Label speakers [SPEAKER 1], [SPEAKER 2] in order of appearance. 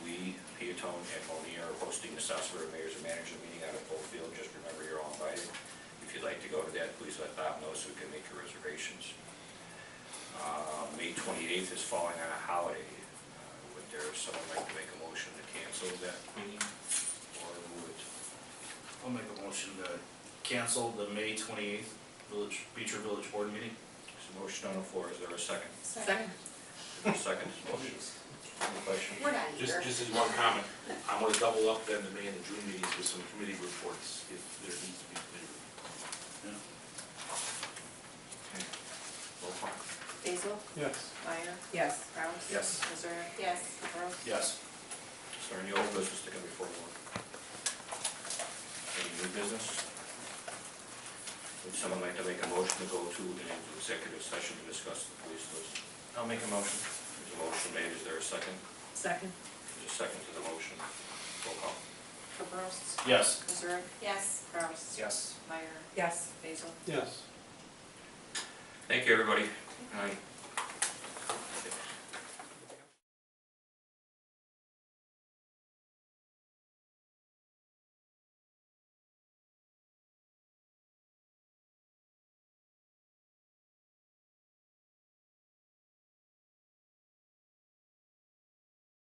[SPEAKER 1] Tone and Monier are hosting the South Suburban Mayor's and Managers Meeting out of Bullfield. Just remember, you're all invited. If you'd like to go to that, please let Bob know so we can make your reservations. Uh, May 28th is falling on a holiday. Uh, Would there, someone like to make a motion to cancel that meeting or move it?
[SPEAKER 2] I'll make a motion to cancel the May twenty-eighth Village, Beecher Village Board meeting.
[SPEAKER 1] There's a motion on the floor, is there a second?
[SPEAKER 3] Second.
[SPEAKER 1] Is there a second to this motion? Any questions?
[SPEAKER 3] We're not
[SPEAKER 4] Just,
[SPEAKER 3] here.
[SPEAKER 4] just as one comment, I'm gonna double up then the May and the June meetings with some committee reports, if there needs to be committee reports.
[SPEAKER 2] Yeah.
[SPEAKER 1] Roll call.
[SPEAKER 3] Basil?
[SPEAKER 5] Yes.
[SPEAKER 3] Meyer?
[SPEAKER 6] Yes.
[SPEAKER 3] Kraus?
[SPEAKER 5] Yes.
[SPEAKER 3] Missouri? Yes. Gross?
[SPEAKER 2] Yes.
[SPEAKER 1] Is there any old business to come before the board? Any new business? Would someone like to make a motion to go to an executive session to discuss the police list?
[SPEAKER 5] I'll make a motion.
[SPEAKER 1] There's a motion made, is there a second?
[SPEAKER 6] Second.
[SPEAKER 1] There's a second to the motion. Roll call.
[SPEAKER 3] Gross?
[SPEAKER 2] Yes.
[SPEAKER 3] Missouri? Yes. Kraus?
[SPEAKER 5] Yes.
[SPEAKER 3] Meyer?
[SPEAKER 6] Yes.
[SPEAKER 3] Basil?
[SPEAKER 5] Yes.
[SPEAKER 1] Thank you, everybody. Aye.